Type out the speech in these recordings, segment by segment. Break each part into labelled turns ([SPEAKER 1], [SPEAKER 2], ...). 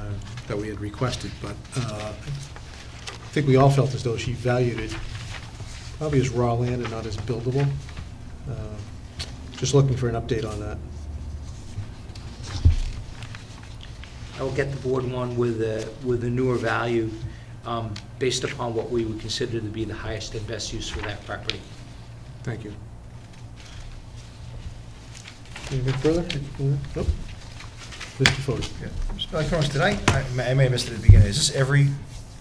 [SPEAKER 1] uh, that we had requested, but uh, I think we all felt as though she valued it probably as raw land and not as buildable. Uh, Just looking for an update on that.
[SPEAKER 2] I will get the board one with a, with a newer value, um, based upon what we would consider to be the highest and best use for that property.
[SPEAKER 1] Thank you. Anything further? Nope. Mr. Fode?
[SPEAKER 3] Yeah. Mr. Malcolm, did I, I may- I may have missed it at the beginning, is this every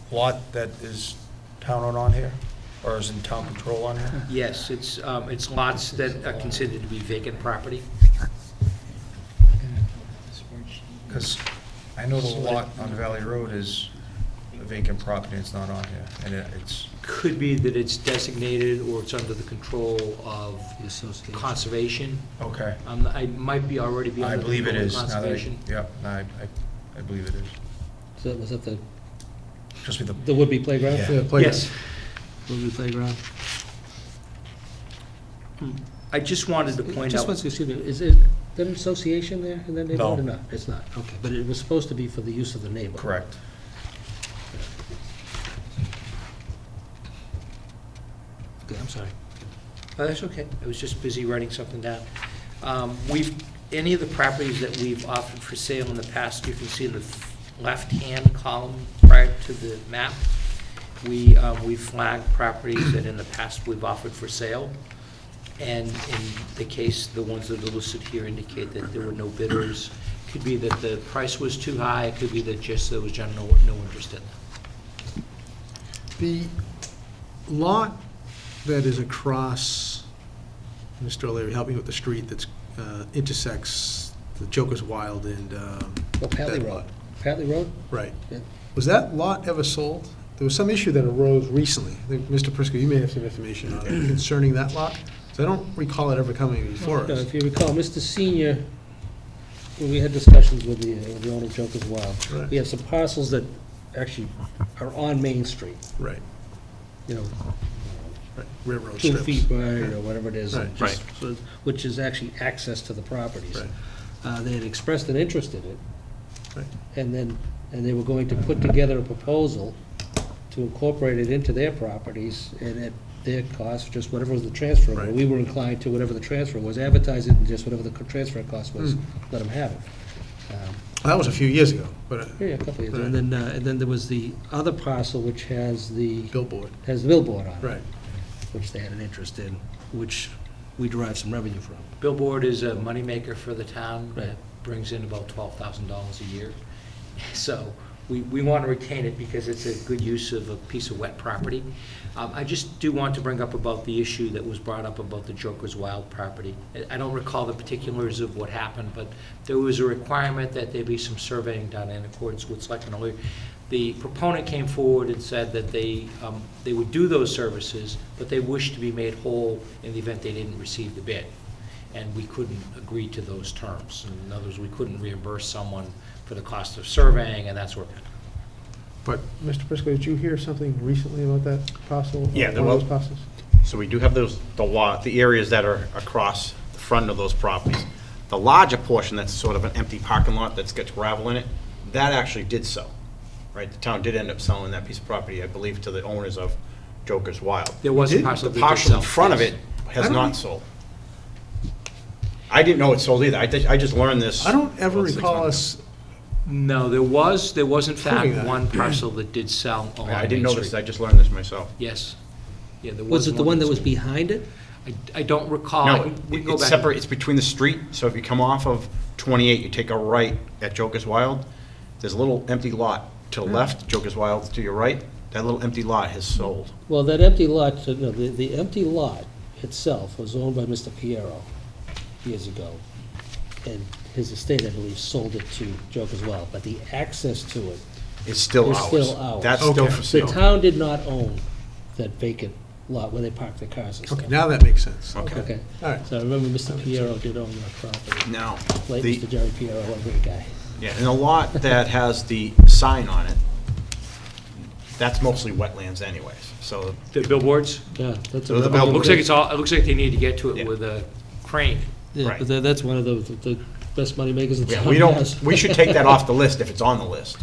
[SPEAKER 3] lot that is town owned on here? Or is in town control on here?
[SPEAKER 2] Yes, it's, um, it's lots that are considered to be vacant property.
[SPEAKER 3] Because I know the lot on Valley Road is a vacant property, it's not on here, and it- it's,
[SPEAKER 2] Could be that it's designated or it's under the control of conservation.
[SPEAKER 3] okay.
[SPEAKER 2] Um, I might be already be
[SPEAKER 3] I
[SPEAKER 2] under the
[SPEAKER 3] believe it
[SPEAKER 2] control of
[SPEAKER 3] is, now that I,
[SPEAKER 2] conservation.
[SPEAKER 3] yeah, no, I, I- I believe it is.
[SPEAKER 4] So was that the,
[SPEAKER 3] Just with the,
[SPEAKER 4] the would-be playground?
[SPEAKER 3] Yeah.
[SPEAKER 1] Yeah, play-
[SPEAKER 2] Yes.
[SPEAKER 4] Would-be playground?
[SPEAKER 2] I just wanted to point
[SPEAKER 4] Just
[SPEAKER 2] out,
[SPEAKER 4] once, excuse me, is it an association there in that neighborhood or
[SPEAKER 3] No.
[SPEAKER 4] not? It's not, okay, but it was supposed to be for the use of the neighbor.
[SPEAKER 3] correct.
[SPEAKER 4] Okay, I'm sorry.
[SPEAKER 2] Oh, that's okay, I was just busy writing something down. Um, We've, any of the properties that we've offered for sale in the past, you can see in the left-hand column prior to the map, we, um, we flagged properties that in the past we've offered for sale, and in the case, the ones that are listed here indicate that there were no bidders. Could be that the price was too high, it could be that just there was general, no interest in them.
[SPEAKER 1] The lot that is across, Mr. O'Leary, help me with the street that's uh, intersects the Joker's Wild and. um,
[SPEAKER 4] Well, Patley
[SPEAKER 1] that
[SPEAKER 4] Road.
[SPEAKER 1] lot.
[SPEAKER 4] Patley Road?
[SPEAKER 1] Right.
[SPEAKER 4] Yeah.
[SPEAKER 1] Was that lot ever sold? There was some issue that arose recently. I think, Mr. Prisco, you may have some information on it concerning that lot, 'cause I don't recall it ever coming before
[SPEAKER 4] No,
[SPEAKER 1] us.
[SPEAKER 4] If you recall, Mr. Senior, when we had discussions with the, with the owner of Joker's
[SPEAKER 1] Right.
[SPEAKER 4] Wild, we have some parcels that actually are on Main Street,
[SPEAKER 1] Right,
[SPEAKER 4] you know,
[SPEAKER 1] right, railroad
[SPEAKER 4] two
[SPEAKER 1] Oh, strips.
[SPEAKER 4] feet wide or whatever it is.
[SPEAKER 1] Right.
[SPEAKER 4] just- so- Which is actually access to the properties.
[SPEAKER 1] Right.
[SPEAKER 4] Uh, They had expressed an interest in it,
[SPEAKER 1] Right.
[SPEAKER 4] and then, and they were going to put together a proposal to incorporate it into their properties, and at their cost, just whatever was the transfer.
[SPEAKER 1] Right.
[SPEAKER 4] We were inclined to whatever the transfer was, advertise it, and just whatever the co- transfer cost was,
[SPEAKER 1] Hmm.
[SPEAKER 4] let them have it. Um,
[SPEAKER 1] That was a few years ago, but a
[SPEAKER 4] Yeah, yeah, a couple of years, and then, uh, and then there was the other parcel which has the,
[SPEAKER 1] billboard,
[SPEAKER 4] has the billboard on it.
[SPEAKER 1] right.
[SPEAKER 4] Which they had an interest in, which we derive some revenue from.
[SPEAKER 2] Billboard is a moneymaker for the town.
[SPEAKER 4] Right.
[SPEAKER 2] It Brings in about twelve thousand dollars a year. So we, we want to retain it because it's a good use of a piece of wet property. Um, I just do want to bring up about the issue that was brought up about the Joker's Wild property. I- I don't recall the particulars of what happened, but there was a requirement that there be some surveying done in accordance with Selectmen O'Leary. The proponent came forward and said that they, um, they would do those services, but they wished to be made whole in the event they didn't receive the bid and we couldn't agree to those terms. In other words, we couldn't reimburse someone for the cost of surveying and that sort of thing.
[SPEAKER 1] But, Mr. Prisco, did you hear something recently about that parcel?
[SPEAKER 5] Yeah, there
[SPEAKER 1] One of
[SPEAKER 5] was-
[SPEAKER 1] those parcels?
[SPEAKER 5] So we do have those, the lot, the areas that are across the front of those properties. The larger portion that's sort of an empty parking lot that's got gravel in it, that actually did sell, right? The town did end up selling that piece of property, I believe, to the owners of Joker's Wild.
[SPEAKER 2] There was a
[SPEAKER 1] Did-
[SPEAKER 2] parcel
[SPEAKER 5] The
[SPEAKER 2] that did
[SPEAKER 5] parcel
[SPEAKER 2] sell,
[SPEAKER 5] in front of
[SPEAKER 2] yes.
[SPEAKER 5] it
[SPEAKER 1] I
[SPEAKER 5] has
[SPEAKER 1] don't-
[SPEAKER 5] not sold. I didn't know it sold either, I did- I just learned this.
[SPEAKER 1] I don't ever
[SPEAKER 5] about six
[SPEAKER 1] recall
[SPEAKER 5] months ago.
[SPEAKER 1] us
[SPEAKER 2] No, there was, there was in fact
[SPEAKER 1] Proving that.
[SPEAKER 2] one parcel that did sell along
[SPEAKER 5] I didn't
[SPEAKER 2] Main
[SPEAKER 5] know this,
[SPEAKER 2] Street.
[SPEAKER 5] I just learned this myself.
[SPEAKER 2] Yes. Yeah, there was
[SPEAKER 4] Was it the one that was
[SPEAKER 2] sold.
[SPEAKER 4] behind it?
[SPEAKER 2] I, I don't recall. I
[SPEAKER 5] No,
[SPEAKER 2] can- we
[SPEAKER 5] it-
[SPEAKER 2] can go
[SPEAKER 5] it's
[SPEAKER 2] back.
[SPEAKER 5] separate, it's between the street, so if you come off of 28, you take a right at Joker's Wild, there's a little empty lot to the
[SPEAKER 4] Hmm.
[SPEAKER 5] left, Joker's Wild to your right, that little empty lot has sold.
[SPEAKER 4] Well, that empty lot, no, the, the empty lot itself was owned by Mr. Piero years ago. And his estate, I believe, sold it to Joke as well, but the access to it,
[SPEAKER 5] It's still
[SPEAKER 4] It's
[SPEAKER 5] ours.
[SPEAKER 4] still ours.
[SPEAKER 5] That's still
[SPEAKER 1] Okay.
[SPEAKER 5] for
[SPEAKER 4] the
[SPEAKER 5] sale.
[SPEAKER 4] town did not own that vacant lot where they parked their cars and
[SPEAKER 1] Okay,
[SPEAKER 4] stuff.
[SPEAKER 1] now that makes sense.
[SPEAKER 5] Okay.
[SPEAKER 4] Okay,
[SPEAKER 1] All right.
[SPEAKER 4] so I remember Mr. Piero did own that property,
[SPEAKER 5] Now,
[SPEAKER 4] late
[SPEAKER 5] the,
[SPEAKER 4] Mr. Jerry Piero, a great guy.
[SPEAKER 5] yeah, and the lot that has the sign on it, that's mostly wetlands anyways, so
[SPEAKER 2] The billboards?
[SPEAKER 4] Yeah, that's. a-
[SPEAKER 5] Those are
[SPEAKER 2] It
[SPEAKER 5] Billboard.
[SPEAKER 2] looks like it's all, it looks like they need to get to
[SPEAKER 5] Yeah.
[SPEAKER 2] it with a crane.
[SPEAKER 4] Yeah,
[SPEAKER 5] Right.
[SPEAKER 4] but tha- that's one of the, the best moneymakers in town.
[SPEAKER 5] Yeah, we don't,
[SPEAKER 4] yes.
[SPEAKER 5] we should take that off the list if it's on the list.